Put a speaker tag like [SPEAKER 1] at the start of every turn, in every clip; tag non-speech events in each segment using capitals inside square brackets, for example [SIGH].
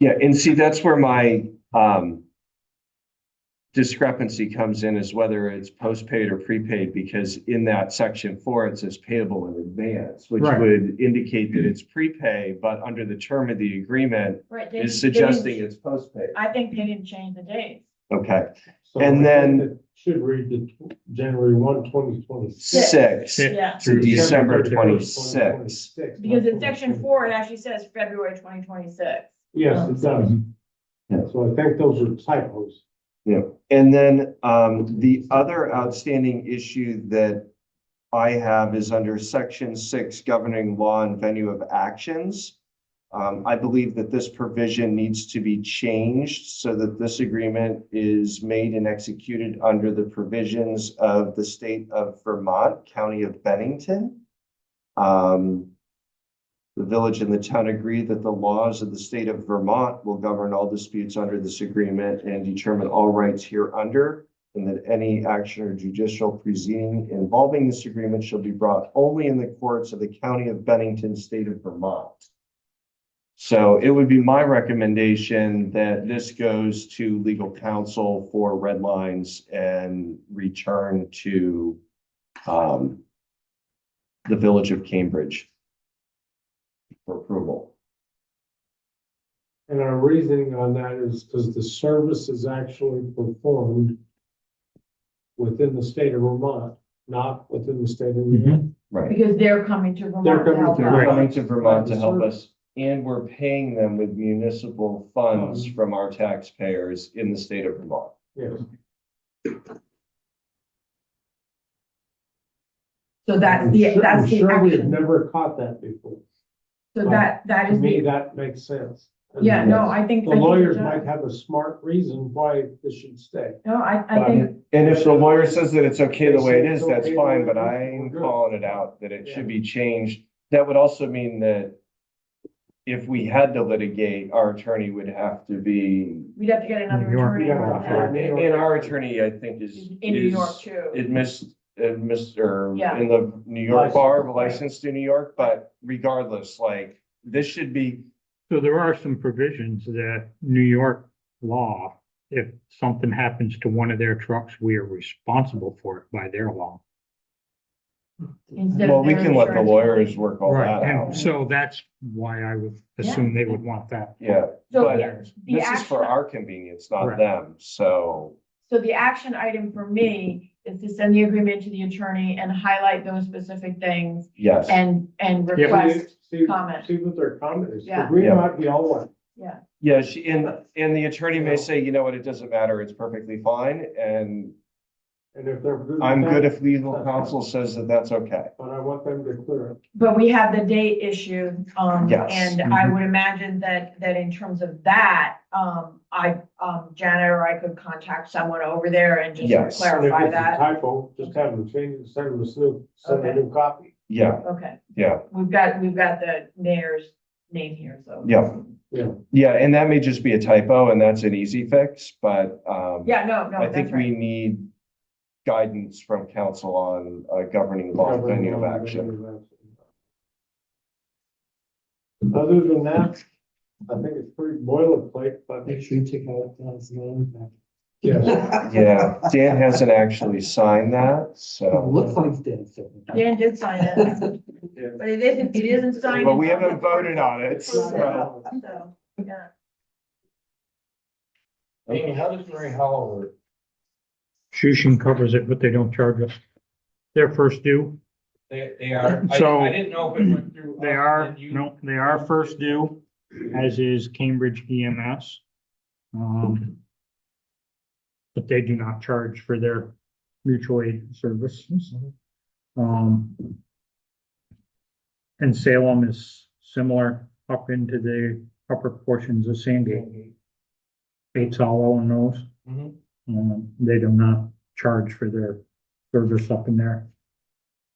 [SPEAKER 1] Yeah, and see, that's where my um discrepancy comes in is whether it's postpaid or prepaid, because in that section four, it says payable in advance, which
[SPEAKER 2] Right.
[SPEAKER 1] would indicate that it's prepay, but under the term of the agreement
[SPEAKER 3] Right. they
[SPEAKER 1] is
[SPEAKER 3] didn't- they didn't-
[SPEAKER 1] suggesting it's postpaid.
[SPEAKER 3] I think they didn't change the dates.
[SPEAKER 1] Okay,
[SPEAKER 4] So
[SPEAKER 1] And
[SPEAKER 4] I think
[SPEAKER 1] then-
[SPEAKER 4] it Should read the tw- January one, twenty twenty-six.
[SPEAKER 1] six
[SPEAKER 2] Yeah.
[SPEAKER 3] Yeah,
[SPEAKER 1] to December
[SPEAKER 4] 26.
[SPEAKER 1] twenty-six.
[SPEAKER 3] because in section four, it actually says February twenty twenty-six.
[SPEAKER 4] Yes, it does.
[SPEAKER 2] Mhm.
[SPEAKER 1] Yeah.
[SPEAKER 4] So I think those are typos.
[SPEAKER 1] And then um, the other outstanding issue that I have is under section six governing law and venue of actions. Um, I believe that this provision needs to be changed so that this agreement is made and executed under the provisions of the state of Vermont, County of Bennington. Um, the village and the town agree that the laws of the state of Vermont will govern all disputes under this agreement and determine all rights hereunder, and that any action or judicial proceeding involving this agreement shall be brought only in the courts of the county of Bennington, state of Vermont. So it would be my recommendation that this goes to legal counsel for red lines and return to um, the village of Cambridge for approval.
[SPEAKER 4] And our reasoning on that is because the service is actually performed within the state of Vermont, not within the state of New York.
[SPEAKER 1] Right.
[SPEAKER 3] Because they're coming to
[SPEAKER 4] They're
[SPEAKER 3] Vermont to
[SPEAKER 4] coming
[SPEAKER 3] help
[SPEAKER 4] to
[SPEAKER 1] They're
[SPEAKER 3] out.
[SPEAKER 4] Vermont.
[SPEAKER 1] coming to Vermont to help us, and we're paying them with municipal funds from our taxpayers in the state of Vermont.
[SPEAKER 4] Yes.
[SPEAKER 3] So that's
[SPEAKER 4] I'm
[SPEAKER 3] the,
[SPEAKER 4] sure-
[SPEAKER 3] that's
[SPEAKER 4] I'm
[SPEAKER 3] the
[SPEAKER 4] Sure, we've
[SPEAKER 3] action.
[SPEAKER 4] never caught that before.
[SPEAKER 3] So that, that
[SPEAKER 4] To
[SPEAKER 3] is
[SPEAKER 4] me,
[SPEAKER 3] the,
[SPEAKER 4] that makes sense.
[SPEAKER 3] yeah, no, I think.
[SPEAKER 4] The
[SPEAKER 3] I think it
[SPEAKER 4] lawyers
[SPEAKER 3] does.
[SPEAKER 4] might have a smart reason why this should stay.
[SPEAKER 3] No, I, I think,
[SPEAKER 1] And if the lawyer says that it's okay the way it is, that's fine, but I'm calling it out, that it should be changed. That would also mean that if we had to litigate, our attorney would have to be,
[SPEAKER 3] we'd have to get another
[SPEAKER 2] New York.
[SPEAKER 3] attorney.
[SPEAKER 4] Yeah,
[SPEAKER 3] involved
[SPEAKER 4] yeah.
[SPEAKER 3] now.
[SPEAKER 1] and our attorney, I think, is.
[SPEAKER 3] In New
[SPEAKER 1] is-
[SPEAKER 3] York too.
[SPEAKER 1] It missed, it missed, or
[SPEAKER 3] Yeah.
[SPEAKER 1] in the New York
[SPEAKER 4] License.
[SPEAKER 1] bar, licensed in New York, but regardless, like, this should be,
[SPEAKER 2] So there are some provisions that New York law, if something happens to one of their trucks, we are responsible for it by their law.
[SPEAKER 3] Instead of
[SPEAKER 1] well, we
[SPEAKER 3] their
[SPEAKER 1] can let the
[SPEAKER 3] insurance.
[SPEAKER 1] lawyers work all that
[SPEAKER 2] And
[SPEAKER 1] out.
[SPEAKER 2] so that's why I would assume they would want that.
[SPEAKER 1] Yeah,
[SPEAKER 3] So
[SPEAKER 1] but
[SPEAKER 3] the- the
[SPEAKER 1] this is for
[SPEAKER 3] action-
[SPEAKER 1] our convenience, not
[SPEAKER 2] Right.
[SPEAKER 1] them, so,
[SPEAKER 3] So the action item for me is to send the agreement to the attorney and highlight those specific things
[SPEAKER 1] yes.
[SPEAKER 3] and, and
[SPEAKER 2] Yeah, but
[SPEAKER 3] request,
[SPEAKER 4] See-
[SPEAKER 3] comment.
[SPEAKER 4] See what their comment is.
[SPEAKER 3] Yeah.
[SPEAKER 4] We
[SPEAKER 1] Yeah.
[SPEAKER 4] might be all one.
[SPEAKER 3] yeah.
[SPEAKER 1] Yeah, she, and, and the attorney may say, you know what, it doesn't matter, it's perfectly fine, and
[SPEAKER 4] And if they're. with
[SPEAKER 1] I'm
[SPEAKER 4] that,
[SPEAKER 1] good if legal counsel says that that's okay.
[SPEAKER 4] But I want them to clear it.
[SPEAKER 3] But we have the date issue, um,
[SPEAKER 1] Yes. Mm-hmm.
[SPEAKER 3] and I
[SPEAKER 2] Mhm.
[SPEAKER 3] would imagine that, that in terms of that, um, I, um, Janet or I could contact someone over there
[SPEAKER 1] Yes.
[SPEAKER 3] and just
[SPEAKER 4] And if
[SPEAKER 3] clarify
[SPEAKER 4] it's a
[SPEAKER 3] that.
[SPEAKER 4] Typo, just have them change it, send them a new, send a
[SPEAKER 3] Okay.
[SPEAKER 4] new copy.
[SPEAKER 1] Yeah,
[SPEAKER 3] Okay,
[SPEAKER 1] yeah,
[SPEAKER 3] we've got, we've got the mayor's name here, so.
[SPEAKER 1] yeah.
[SPEAKER 4] Yeah.
[SPEAKER 1] Yeah, and that may just be a typo, and that's an easy fix, but, um.
[SPEAKER 3] Yeah, no,
[SPEAKER 1] I
[SPEAKER 3] no, that's
[SPEAKER 1] think we
[SPEAKER 3] right.
[SPEAKER 1] need guidance from council on uh, governing law and venue of action.
[SPEAKER 4] Other than that, I think it's pretty boilerplate, but
[SPEAKER 5] Make sure you take out Dan's name.
[SPEAKER 4] yes,
[SPEAKER 5] [LAUGHS]
[SPEAKER 1] Yeah, Dan hasn't actually signed that,
[SPEAKER 5] Looks
[SPEAKER 1] so.
[SPEAKER 5] like Dan's. name.
[SPEAKER 3] Dan did sign it, but it isn't, it isn't signed.
[SPEAKER 1] But we haven't voted on it,
[SPEAKER 4] uh,
[SPEAKER 1] so.
[SPEAKER 3] So, yeah.
[SPEAKER 6] Amy, how does Mary Hollow work?
[SPEAKER 2] Shushin covers it, but they don't charge us. Their first due,
[SPEAKER 6] They, they are, I,
[SPEAKER 2] So-
[SPEAKER 6] I didn't know if it went through.
[SPEAKER 2] they
[SPEAKER 6] us
[SPEAKER 2] are,
[SPEAKER 6] and you-
[SPEAKER 2] no, they are first due, as is Cambridge EMS. Um, But they do not charge for their mutual aid services. Um, and Salem is similar up into the upper portions of Sandgate. Bates Hollow and those.
[SPEAKER 6] Mhm.
[SPEAKER 2] Um, they do not charge for their service up in their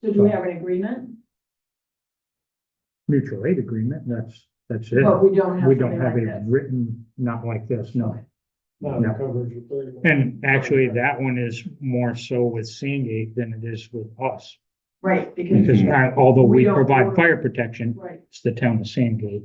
[SPEAKER 3] So do we have an agreement?
[SPEAKER 2] mutual aid agreement, that's, that's it.
[SPEAKER 3] But we don't have.
[SPEAKER 2] We don't
[SPEAKER 3] something
[SPEAKER 2] have
[SPEAKER 3] like
[SPEAKER 2] it
[SPEAKER 3] this.
[SPEAKER 2] written, not like this, no.
[SPEAKER 4] not the coverage of thirty.
[SPEAKER 2] And actually, that one is more so with Sandgate than it is with us.
[SPEAKER 3] Right, because,
[SPEAKER 2] Because I- although
[SPEAKER 3] We
[SPEAKER 2] we
[SPEAKER 3] don't-
[SPEAKER 2] provide fire protection,
[SPEAKER 3] right.
[SPEAKER 2] it's the town of Sandgate.